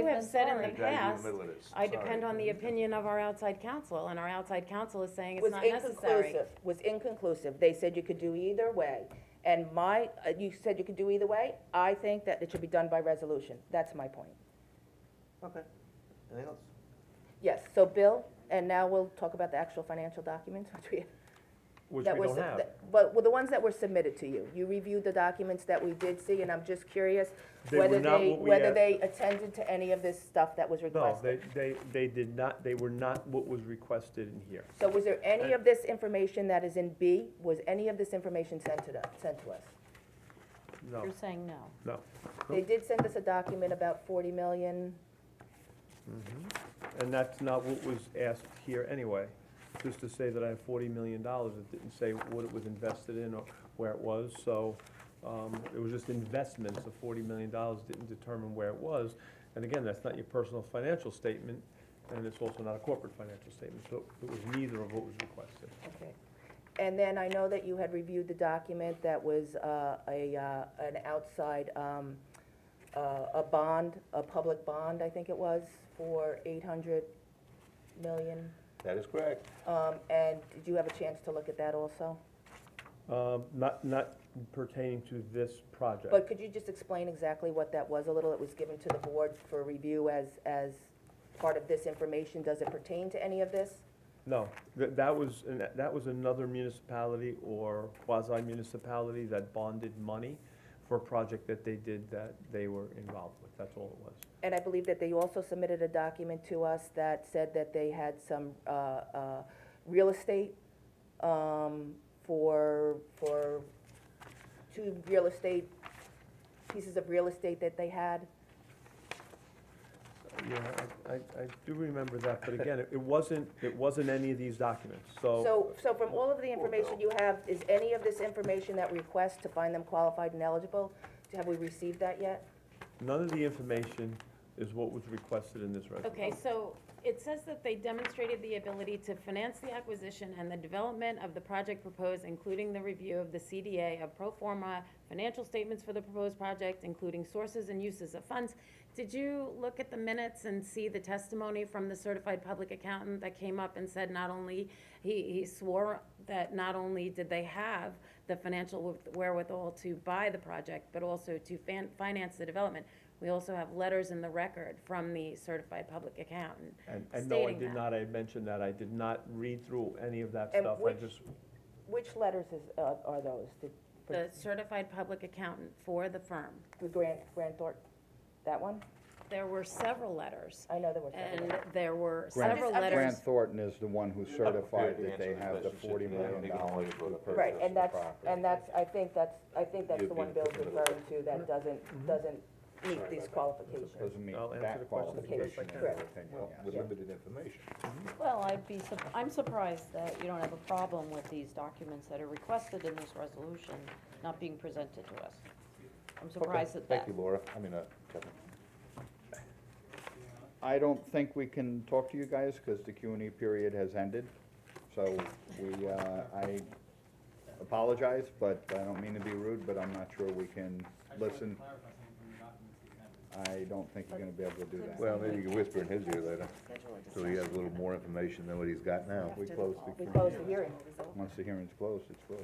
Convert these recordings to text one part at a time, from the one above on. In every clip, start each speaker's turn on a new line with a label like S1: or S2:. S1: You have
S2: been
S1: said in
S2: sorry.
S1: the
S3: Guys, you're in
S1: past,
S3: the middle of this.
S1: I
S3: Sorry.
S1: depend on the opinion of our outside counsel, and our outside counsel is saying it's
S2: was
S1: not necessary.
S2: inconclusive, was inconclusive. They said you could do either way. And my, uh, you said you could do either way. I think that it should be done by resolution. That's my point.
S3: Okay, anything else?
S2: Yes, so Bill, and now we'll talk about the actual financial documents, which we.
S4: Which
S2: that
S4: we
S2: were
S4: don't
S2: sub-
S4: have.
S2: that- But, well, the ones that were submitted to you. You reviewed the documents that we did see, and I'm just curious
S4: They were
S2: whether
S4: not
S2: they,
S4: what we
S2: whether
S4: had-
S2: they attended to any of this stuff that was
S4: No, they,
S2: requested.
S4: they, they did not, they were not what was requested in here.
S2: So was there any of this information that is in B? Was any of this information sent to, the- sent to us?
S4: No,
S1: You're saying no.
S4: no.
S2: They did send us a document about forty million.
S4: Mm-hmm. And that's not what was asked here anyway. Just to say that I have forty million dollars, it didn't say what it was invested in or where it was, so, um, it was just investments of forty million dollars, didn't determine where it was. And again, that's not your personal financial statement, and it's also not a corporate financial statement, so it was neither of what was requested.
S2: Okay. And then I know that you had reviewed the document that was uh, a, uh, an outside, um, uh, a bond, a public bond, I think it was, for 800 million.
S3: That is correct.
S2: Um, And did you have a chance to look at that also?
S4: Um, not, not pertaining to this project.
S2: But could you just explain exactly what that was a little? It was given to the board for review as, as part of this information. Does it pertain to any of this?
S4: No, that, that was, an- that was another municipality or quasi-municipality that bonded money for a project that they did that they were involved with, that's all it was.
S2: And I believe that they also submitted a document to us that said that they had some uh, uh, real estate um, for, for two real estate, pieces of real estate that they had.
S4: Yeah, I, I, I do remember that, but again, it it wasn't, it wasn't any of these documents, so,
S2: So, so from all of the information you have, is any of this information that request to find them qualified and eligible? Have we received that yet?
S4: none of the information is what was requested in this resolution.
S1: Okay, so it says that they demonstrated the ability to finance the acquisition and the development of the project proposed, including the review of the CDA of pro forma financial statements for the proposed project, including sources and uses of funds. Did you look at the minutes and see the testimony from the certified public accountant that came up and said not only, he, he swore that not only did they have the financial wherewithal to buy the project, but also to fan, finance the development? We also have letters in the record from the certified public accountant
S4: And, and no, I
S1: stating
S4: did
S1: that.
S4: not, I mentioned that, I did not read through any of that
S2: And
S4: stuff, I
S2: which-
S4: just,
S2: Which letters is, uh, are those? The- for
S1: The certified public accountant for the firm.
S2: The Grant, Grant Thornton, that one?
S1: There were several letters,
S2: I know there were several.
S1: and there were
S5: Grant-
S1: several
S2: I'm just-
S1: letters.
S5: Grant Thornton is the one who certified
S3: Okay,
S5: that they
S3: answer
S5: have
S3: this
S5: the
S3: question,
S5: forty
S3: yeah,
S5: million
S3: make a
S5: dollars.
S3: noise, vote up.
S5: for
S2: Right,
S5: purchase of
S2: and that's,
S5: property.
S2: and that's, I think that's, I think that's the one
S3: You'd be
S2: Bill's
S3: in the middle.
S2: referring to that doesn't, doesn't meet these qualifications.
S5: Doesn't meet
S4: I'll answer the
S5: that
S4: questions as best I
S5: qualification,
S4: can.
S5: in
S2: Correct.
S5: my opinion,
S3: Well,
S5: yes.
S3: with
S2: Yeah.
S3: limited information.
S6: Well, I'd be, sup- I'm surprised that you don't have a problem with these documents that are requested in this resolution not being presented to us. I'm surprised
S3: Okay,
S6: at that.
S3: Thank you, Laura, I mean, uh, Kevin.
S5: I don't think we can talk to you guys, because the Q and E period has ended, so we, uh, I apologize, but I don't mean to be rude, but I'm not sure we can listen. I don't think you're gonna be able to do that.
S3: Well, maybe you can whisper in his ear later, so he has a little more information than what he's got now.
S5: We close
S2: We
S5: the,
S2: close the hearing.
S5: once the hearing's closed, it's closed.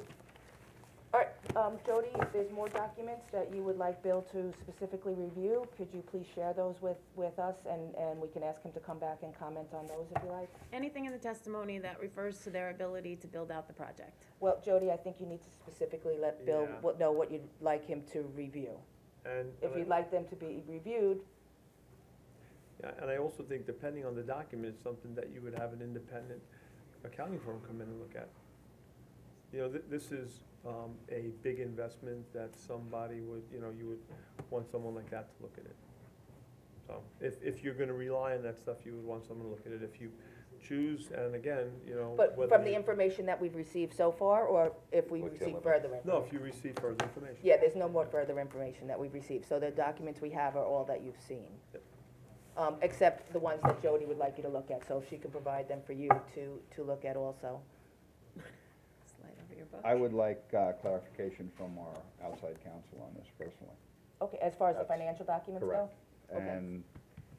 S2: All right, um, Jody, if there's more documents that you would like Bill to specifically review, could you please share those with, with us? And, and we can ask him to come back and comment on those if you like.
S1: Anything in the testimony that refers to their ability to build out the project.
S2: Well, Jody, I think you need to specifically let Bill
S4: Yeah.
S2: w- know what you'd like him to review.
S4: And.
S2: If
S4: and I-
S2: you'd like them to be reviewed,
S4: Yeah, and I also think depending on the document, it's something that you would have an independent accounting firm come in and look at. You know, th- this is, um, a big investment that somebody would, you know, you would want someone like that to look at it. So, if, if you're gonna rely on that stuff, you would want someone to look at it, if you choose, and again, you know, whether
S2: but from the
S4: you-
S2: information that we've received so far, or if we
S3: Or till
S2: receive
S3: it-
S2: further information?
S4: No, if you receive further information.
S2: Yeah, there's no more further information that we've received, so the documents we have are all that you've seen.
S4: Yep.
S2: Um, except the ones that Jody would like you to look at, so if she can provide them for you to, to look at also.
S1: Slide over your book.
S5: I would like uh, clarification from our outside counsel on this personally.
S2: Okay, as far as the
S5: That's
S2: financial documents go?
S5: Correct.
S2: Okay.
S5: And